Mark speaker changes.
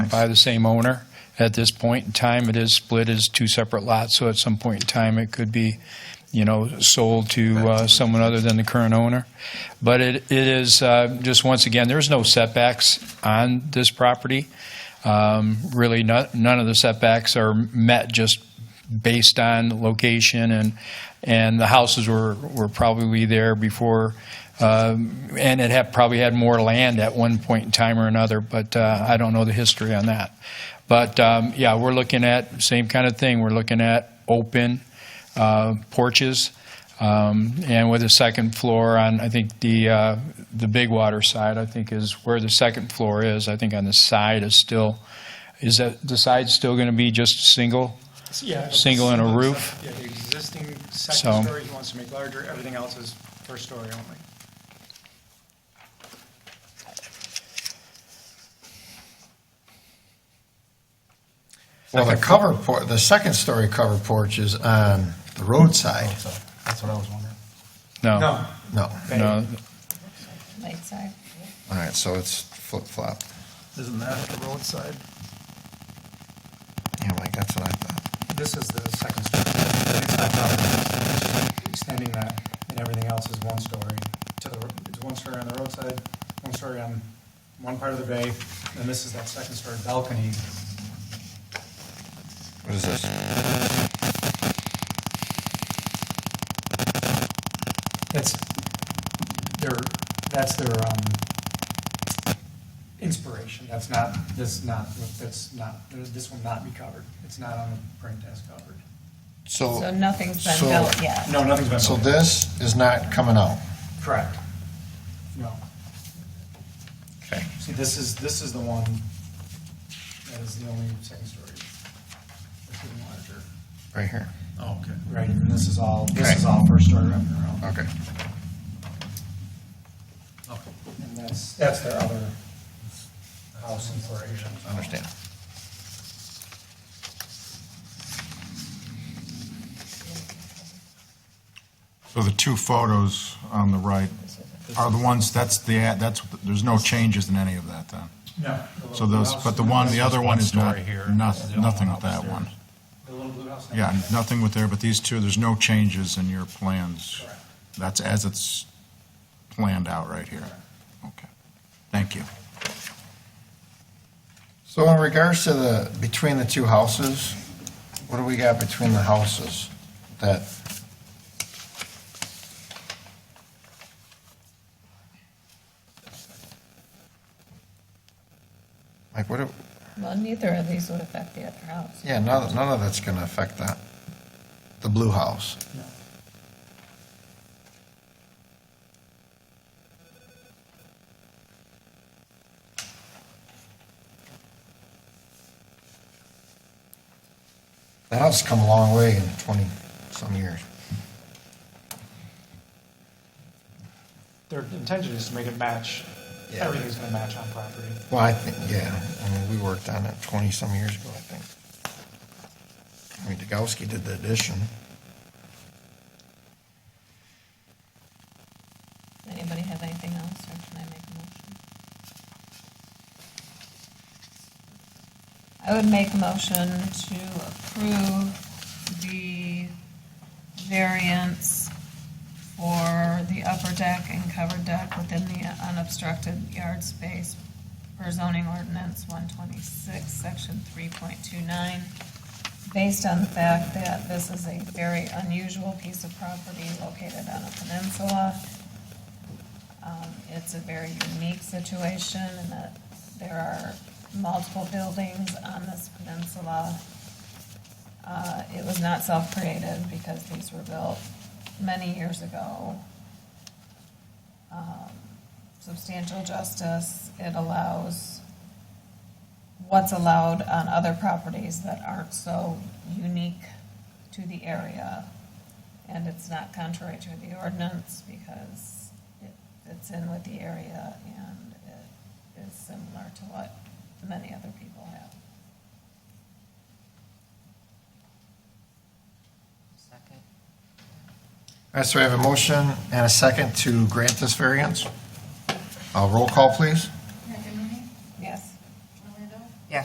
Speaker 1: by the same owner. At this point in time, it is split as two separate lots, so at some point in time, it could be, you know, sold to uh, someone other than the current owner. But it it is, uh, just once again, there's no setbacks on this property. Um, Really, no- none of the setbacks are met just based on location, and, and the houses were, were probably there before, um, and it had, probably had more land at one point in time or another, but uh, I don't know the history on that. But, um, yeah, we're looking at, same kind of thing, we're looking at open uh, porches, um, and with a second floor on, I think the, uh, the big water side, I think is where the second floor is, I think on the side is still, is that, the side still going to be just single?
Speaker 2: Yeah.
Speaker 1: Single and a
Speaker 2: single
Speaker 1: roof.
Speaker 2: sec- Yeah, the existing
Speaker 1: So-
Speaker 2: second story, he wants to make larger, everything else is first story only.
Speaker 3: Well, the cover porch, the second story cover porch is on the roadside. That's what I was wondering.
Speaker 1: Oh.
Speaker 2: No,
Speaker 3: No.
Speaker 1: No,
Speaker 4: Light side.
Speaker 3: All right, so it's flip flop.
Speaker 2: isn't that the roadside?
Speaker 3: Yeah, like that's what I thought.
Speaker 2: This is the second story. It's not that, it's Extending that, and everything else is one story. To the, it's one story on the roadside, one story on one part of the bay, and this is that second story balcony.
Speaker 3: What is this?
Speaker 2: That's their, that's their, um, inspiration. That's not, this not, that's not, this will not be covered. It's not on the print as covered.
Speaker 4: So
Speaker 3: So,
Speaker 4: nothing's been
Speaker 3: Oh. so-
Speaker 4: built yet.
Speaker 2: No, nothing's been.
Speaker 3: so
Speaker 2: voted.
Speaker 3: this is not coming out.
Speaker 2: Correct. No.
Speaker 3: Okay.
Speaker 2: See, this is, this is the one that is the only second story. That's even larger.
Speaker 3: Right here.
Speaker 5: Oh, okay.
Speaker 2: Right, and this is all, this
Speaker 3: Correct.
Speaker 2: is all first story wrapping around.
Speaker 3: Okay.
Speaker 5: Okay.
Speaker 2: And that's, that's their other house inspiration.
Speaker 3: I understand.
Speaker 6: So the two photos on the right are the ones, that's the, ad- that's, there's no changes in any of that then?
Speaker 2: No. the
Speaker 6: So
Speaker 2: little
Speaker 6: those,
Speaker 2: house-
Speaker 6: but the one, the other one is not,
Speaker 5: Story here.
Speaker 6: noth- nothing with that one.
Speaker 2: The little blue house.
Speaker 6: Yeah, nothing with there, but these two, there's no changes in your plans.
Speaker 2: Correct.
Speaker 6: That's as it's planned out right here. Okay. Thank you.
Speaker 3: So in regards to the, between the two houses, what do we got between the houses that? Like, what, do-
Speaker 4: Well, neither of these would affect the other house.
Speaker 3: yeah, none, none of that's gonna affect that. The blue house.
Speaker 2: No.
Speaker 3: The house come a long way in twenty-some years.
Speaker 2: Their intention is to make it match,
Speaker 3: Yeah.
Speaker 2: everything's gonna match on property.
Speaker 3: Well, I think, yeah, I mean, we worked on it twenty-some years ago, I think. I mean, Degowski did the addition.
Speaker 4: Anybody have anything else, or can I make a motion? I would make a motion to approve the variance for the upper deck and covered deck within the unobstructed yard space per zoning ordinance one twenty-six, section three point two nine, based on the fact that this is a very unusual piece of property located on a peninsula. Um, It's a very unique situation in that there are multiple buildings on this peninsula. Uh, It was not self-created because these were built many years ago. Um, Substantial justice, it allows what's allowed on other properties that aren't so unique to the area. And it's not contrary to the ordinance because it fits in with the area and it is similar to what many other people have.
Speaker 3: All right, so we have a motion and a second to grant this variance. Uh, roll call, please.